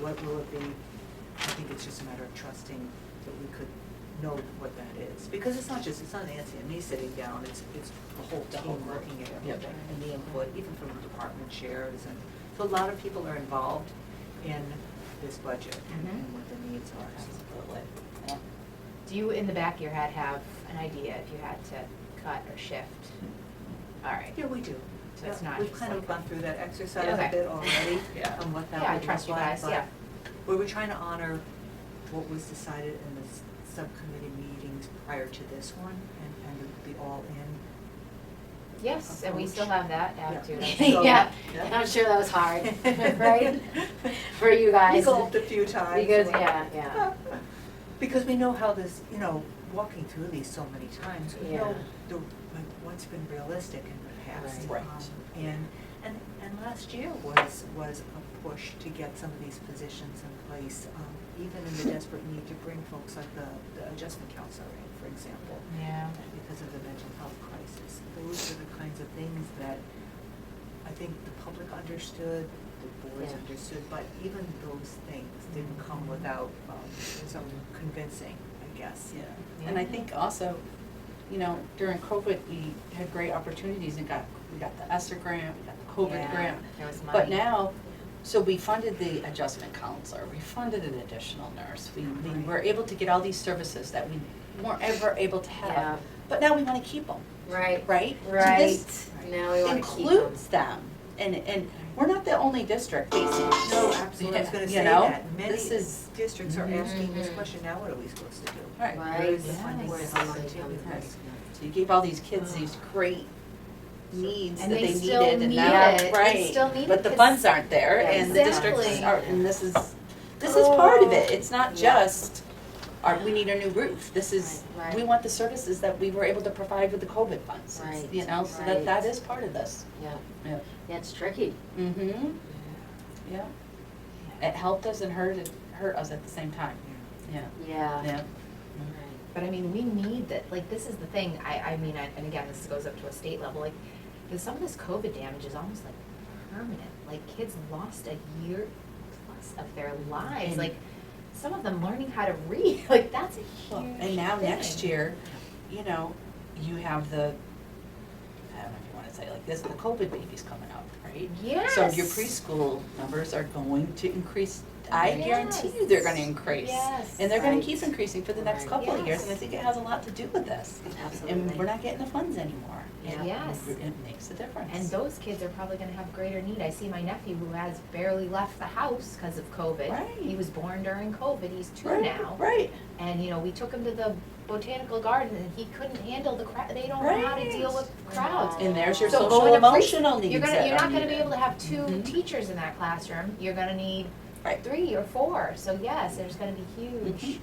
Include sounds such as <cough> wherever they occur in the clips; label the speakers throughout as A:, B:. A: what will it be? I think it's just a matter of trusting that we could know what that is. Because it's not just, it's not Nancy and me sitting down, it's, it's the whole
B: The whole
A: team
B: group.
A: looking at
B: Yeah.
A: everything and the input, even from the department chairs and, so a lot of people are involved in this budget and-
C: Mhm.
A: and what the needs are.
B: Absolutely. Yeah.
C: Do you, in the back of your head, have an idea if you had to cut or shift? All right.
A: Yeah, we do.
C: So it's
A: Yeah,
C: not
A: We've
C: just
A: kind of
C: like-
A: gone through that exercise
C: Yeah,
A: a
C: okay.
A: bit already
B: Yeah.
A: on what that would look like.
C: <laughs> Yeah, I trust you guys,
A: but
C: yeah.
A: We were trying to honor what was decided in the s- subcommittee meetings prior to this one and, and the- the all-in.
C: Yes, and we still
A: Approach.
C: have that
A: Yeah. <laughs>
C: attitude.
A: So-
C: Yeah, and I'm sure that was
A: <laughs>
C: hard, <laughs> right? For you
A: We
C: guys.
A: gulped a few times.
C: Because,
A: like,
C: yeah, yeah.
A: <laughs> Because we know how this, you know, walking through these so many times, we know
C: Yeah.
A: the, like, what's been realistic in the past.
B: Right.
A: um,
B: Right.
A: And, and, and last year was, was a push to get some of these positions in place, um, even in the
C: <laughs>
A: desperate need to bring folks like the, the adjustment counselor in, for example
C: Yeah.
A: because of the mental health crisis. Those are the kinds of things that I think the public understood, the boards
C: Yeah.
A: understood, but even those things didn't come
C: Mhm.
A: without um, some convincing, I guess.
B: Yeah, and I think also, you know, during COVID, we had great opportunities and got, we got the ESSER grant, we got the COVID
C: Yeah,
B: grant.
C: There was money.
B: But now, so we funded the adjustment counselor, we funded an additional nurse, we, we
A: Right.
B: were able to get all these services that we weren't ever able to
C: Yeah.
B: have. But now we wanna keep them,
D: Right.
B: right? So this
D: Right, now we wanna keep 'em.
B: Includes them, and, and we're not the only district facing this.
A: No, absolutely, I was gonna
B: You
A: say
B: know,
A: that. Many
B: This is,
A: districts are asking this
D: Mhm.
A: question, now what are we supposed to do?
B: right.
D: Right.
A: Where is the
C: Yes.
A: funding
D: Where's the
A: source?
D: money coming from?
B: Right. So you gave all these kids these great needs that
D: And
B: they
D: they
B: needed
D: still
B: and
D: need
B: now,
D: it. They
B: right.
D: still need
B: But
D: it
B: the
D: 'cause-
B: funds aren't there
D: Yeah,
B: and the districts
D: exactly.
B: are, and this is, this is part of it.
D: Oh.
B: It's not
D: Yeah.
B: just, our, we need a new roof. This is,
D: Right, right.
B: we want the services that we were able to provide with the COVID funds. It's- You
D: Right,
B: know, so that, that
D: right.
B: is part of this.
D: Yeah,
B: Yeah.
D: yeah, it's tricky.
B: Mm-hmm, yeah. It helped us and hurt, hurt us at the same time, yeah,
D: Yeah.
B: yeah.
C: But I mean, we need that, like, this is the thing, I, I mean, I- and again, this goes up to a state level, like, because some of this COVID damage is almost like permanent, like, kids lost a year plus of their lives,
B: And-
C: like, some of them learning how to read, <laughs> like, that's a huge thing.
B: And now next year, you know, you have the, I don't know if you wanna say like this, the COVID babies coming up, right? So your
C: Yes.
B: preschool numbers are going to increase, I guarantee you they're gonna
C: Yes.
B: increase.
C: Yes.
B: And they're gonna
D: Right.
B: keep increasing for the next
D: Right.
B: couple of years,
C: Yes.
B: and I think it has a lot to do with this. And
D: Absolutely.
B: we're not getting the funds anymore.
D: Yeah.
C: Yes.
B: It it makes a difference.
C: And those kids are probably gonna have greater need. I see my nephew who has barely left the house because of COVID.
B: Right.
C: He was born during COVID, he's two
B: Right,
C: now.
B: Right,
C: And, you know, we took him to the botanical garden and he couldn't handle the crowd, they don't know how to deal with
D: Right.
C: crowds.
B: and there's your
C: So
B: social
C: going to pre-
B: emotional needs
C: You're
B: that
C: gonna, you're
B: are
C: not gonna be
B: needed.
C: able to have two
B: Mhm.
C: teachers in that classroom, you're gonna need
B: Right.
C: three or four, so yes, there's gonna be huge,
B: Mhm.
C: huge.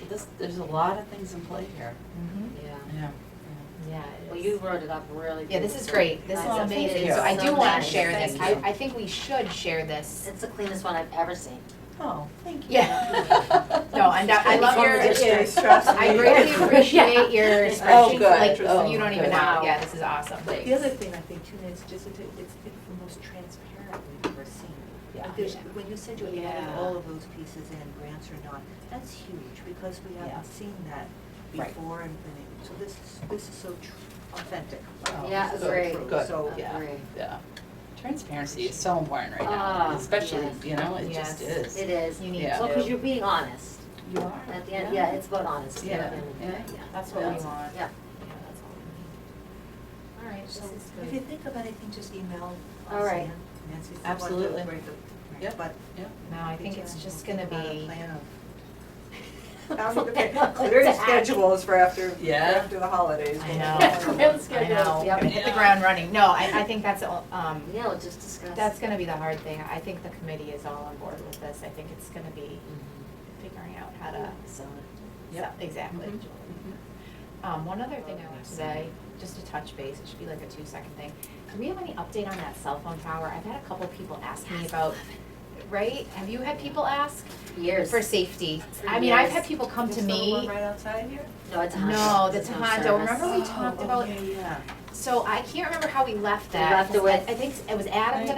B: So This, there's a lot of things in play here.
C: Mhm.
D: Yeah.
B: Yeah.
C: Yeah,
D: Well,
C: it
D: you
C: is.
D: wrote it up really good.
C: Yeah, this is great, this is
D: Oh,
C: amazing,
B: you.
C: so I
D: It's
C: do
D: so
C: wanna
D: nice.
C: share this, I,
B: Thank you.
C: I think we should
B: <laughs>
C: share this.
D: It's the cleanest one I've ever seen.
B: Oh, thank you.
C: Yeah. No, and I I love
B: From
C: your,
B: the district.
C: I
B: <laughs>
C: greatly appreciate your
B: Oh,
C: spreadsheet,
B: good.
C: like,
B: Oh,
C: you don't even
B: good.
C: know, yeah, this is awesome, like.
A: The other thing I think too is just that it- it's, it's the most transparent we've ever seen.
B: Yeah.
A: Because when you said you had added
D: Yeah.
A: all of those pieces in, grants or not, that's huge because we
B: Yeah.
A: haven't seen that
B: Right.
A: before and, and it- so this is, this is so tr- authentic.
B: Oh,
D: Yeah,
A: This is so
D: agree.
A: true.
B: Good.
A: So,
C: Oh,
D: Yeah. Agree.
B: Yeah. Transparency is so important right now,
D: Ah,
B: especially,
D: yes.
B: you know, it just
C: Yes.
B: is.
D: It is.
C: You need
B: Yeah.
D: Well, because
C: to,
D: you're being honest.
B: You are.
D: At the end, yeah, it's about honesty.
B: Yeah.
D: At the end of the day,
B: Yeah.
C: that's what we want.
B: Yeah.
D: Yeah.
C: Yeah, that's all we need. <laughs> All right, this
A: So
C: is
A: if you
C: good.
A: think of anything, just email us.
D: All right.
A: and Nancy's the one to
B: Absolutely.
A: write the-
B: Yep.
A: But.
B: Yep.
C: No, I think it's just gonna
A: Think about a
C: be,
A: plan of-
C: <laughs>
D: Yeah. <laughs>
A: <laughs> Clear your schedules for after, for
B: Yeah.
A: after the holidays. <laughs>
C: I
A: when
C: know.
A: we're all-
D: Clear
C: I
D: the schedules,
C: know,
D: yep.
C: hit the ground running. No, I, I think that's, all- um,
D: Yeah, we'll just discuss.
C: that's gonna be the hard thing. I think the committee is all on board with this. I think it's gonna be figuring out how to,
D: Mm-hmm. So,
C: so, exactly.
B: Mhm.
C: Um, one other thing I want to say, just to touch base, it should be like a two-second thing. Do we have any update on that cell phone tower? I've had a couple people ask me about, right? Have you had people ask?
D: Years.
C: For safety.
D: For
C: I mean, I've had
D: years.
C: people come to
A: There's still one
C: me.
A: right outside here?
D: No, it's a Honda.
C: No, the
D: There's no
C: Tohoto,
D: service.
C: remember we talked about-
A: Oh, yeah, yeah.
C: So I can't remember how we left
D: We
C: that.
D: left it with-
C: I think it was Adam that